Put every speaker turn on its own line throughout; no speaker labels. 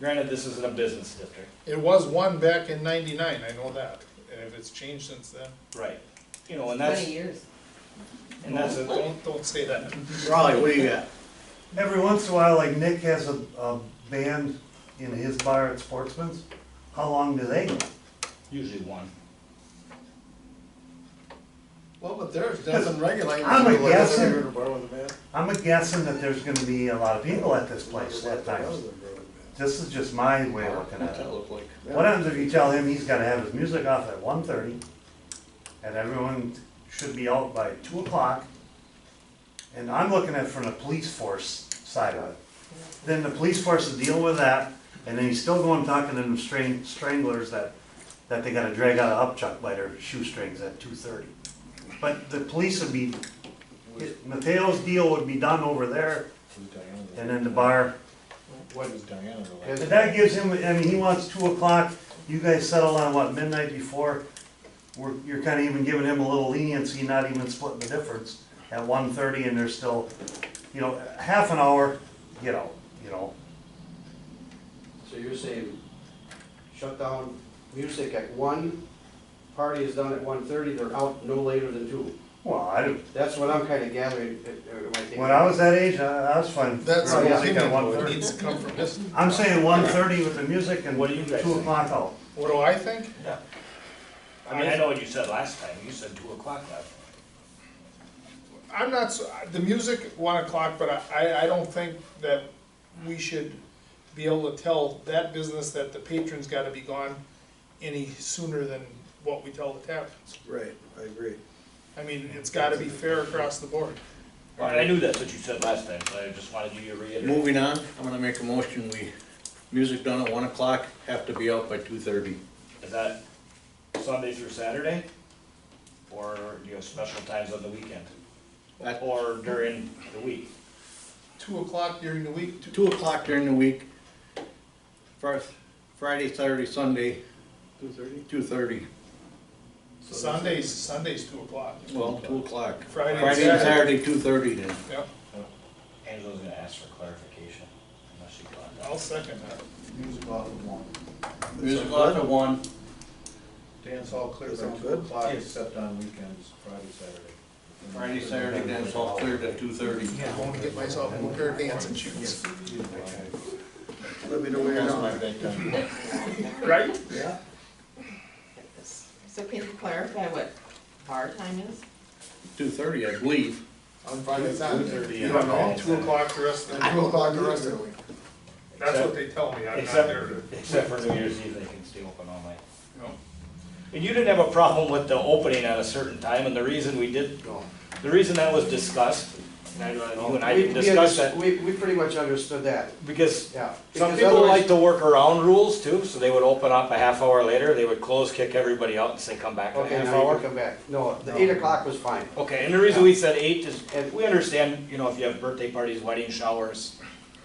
Granted, this isn't a business district.
It was one back in ninety-nine, I know that, and if it's changed since then,
Right. You know, and that's,
Twenty years.
and that's, a-
don't, don't say that.
Raleigh, what do you got?
Every once in a while, like Nick has a, a band in his bar at Sportsman's, how long do they go?
usually one.
Well, but there's nothing regulating.
I'm a
people like
guessing.
that are gonna borrow the van.
I'm guessing that there's gonna be a lot of people at this place that time. This is just my way of looking at
That
it.
look like.
What happens if you tell him he's gotta have his music off at 1:30, and everyone should be out by two o'clock? And I'm looking at it from the police force side of it. Then the police force will deal with that, and then he's still going talking to them strang- stranglers that, that they gotta drag out of Upchuck by their shoestrings at two thirty. But the police would be, Mateo's deal would be done over there, and then the bar
What is Diana like?
but that gives him, I mean, he wants two o'clock, you guys settle on what, midnight before? We're, you're kinda even giving him a little leniency, not even splitting the difference at one thirty and there's still, you know, half an hour, you know, you know.
So you're saying shut down music at one, party is done at one thirty, they're out no later than two.
Well, I, don't-
That's what I'm kinda gathering, uh, uh, am I thinking?
when I was that age, I, I was fine.
That's
Oh,
an
yeah.
opinion, though. it
1:30.
needs to come from this.
I'm saying one thirty with the music and
What do you guys
two
think?
o'clock out.
What do I think?
I mean, I know what you said last time. You said two o'clock last time.
I'm not, so- the music, one o'clock, but I, I don't think that we should be able to tell that business that the patron's gotta be gone any sooner than what we tell the taverns.
Right, I agree.
I mean, it's gotta be fair across the board.
Well, I knew that's what you said last time, so I just wanted you to reiterate.
Moving on, I'm gonna make a motion, we, music done at one o'clock, have to be out by two thirty.
Is that Sunday through Saturday? Or do you have special times on the weekend?
That-
Or during the week?
Two o'clock during the week, two,
Two o'clock during the week, first, Friday, Saturday, Sunday. Two thirty? Two thirty,
Sundays, Sundays two o'clock.
well, two o'clock.
Friday and
Friday and
Saturday.
Saturday, two thirty then.
Yep,
Angela's gonna ask for clarification, unless she got that.
I'll second that.
Music off at one.
Music off at one,
Dance all clear
Does that
by
sound
two
good?
o'clock,
Yes.
except on weekends, Friday, Saturday.
Friday, Saturday, then it's all cleared at two thirty.
I want to get myself a pair of dancing shoes.
Let me know where you're
That's
on.
my big time.
Right?
Yeah.
So can you clarify what bar time is?
Two thirty, I believe.
On Friday, Saturday.
You don't know, two o'clock the rest of
And
the,
two o'clock the rest of the week.
that's what they tell me, I'm not there.
Except,
to-
except for New Year's Eve, they can stay open all night.
No.
And you didn't have a problem with the opening at a certain time, and the reason we did, the reason that was discussed, and I, you and I
We-
didn't
we
discuss
under-
that,
We, we pretty much understood that,
because
yeah.
some
Because
people
otherwise-
like to work around rules too, so they would open up a half hour later, they would close, kick everybody out, and say, come back in a
Okay,
half
now you
hour.
can come back. No, the eight o'clock was fine.
Okay, and the reason we said eight is, and we understand, you know, if you have birthday parties, wedding showers,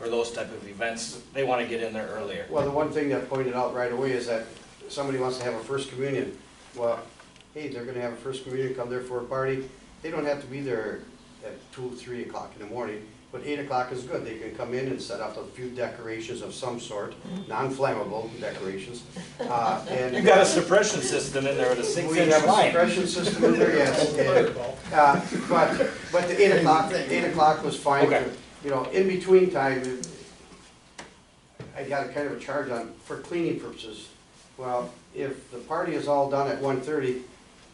or those type of events, they wanna get in there earlier.
Well, the one thing that pointed out right away is that somebody wants to have a first communion. Well, hey, they're gonna have a first communion, come there for a party. They don't have to be there at two, three o'clock in the morning, but eight o'clock is good. They can come in and set up a few decorations of some sort, non-flammable decorations. Uh,
Mm-hmm.
and-
You got a suppression system in there with a six
we
inch
have a
line.
suppression system in there, yes, and, uh, but, but the eight o'clock, eight o'clock was fine.
Okay.
You know, in between time, I got a kind of a charge on, for cleaning purposes. Well, if the party is all done at one thirty,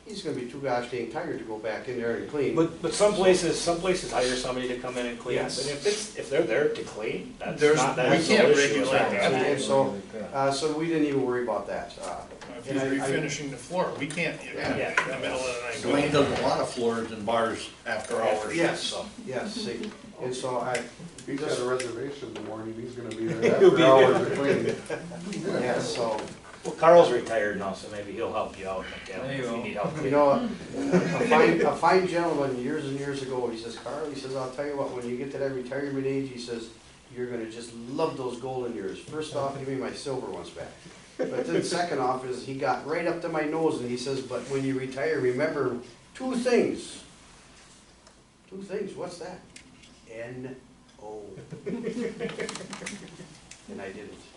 he's gonna be too gosh dang tired to go back in there and clean.
But, but some places, some places hire somebody to come in and clean, and
Yes.
if it's, if they're there to clean, that's
There's-
not,
we
that's
can't
no issue.
regulate
right?
that.
And so, uh, so we didn't even worry about that, uh,
If he's refinishing the floor, we can't get in
Yeah.
the middle of the night.
Dwayne does a lot of floors and bars after hours.
yes, so, yes, see, and so I,
If he's got a reservation in the morning, he's gonna be there
He'll be
after hours between.
yeah, so.
Well, Carl's retired now, so maybe he'll help you out, like, uh, if you need help.
You know, a a fine, a fine gentleman years and years ago, he says, Carl, he says, I'll tell you what, when you get to that retirement age, he says, you're gonna just love those golden years. First off, give me my silver ones back. But then second off is he got right up to my nose and he says, but when you retire, remember two things. Two things, what's that? N O. And I didn't.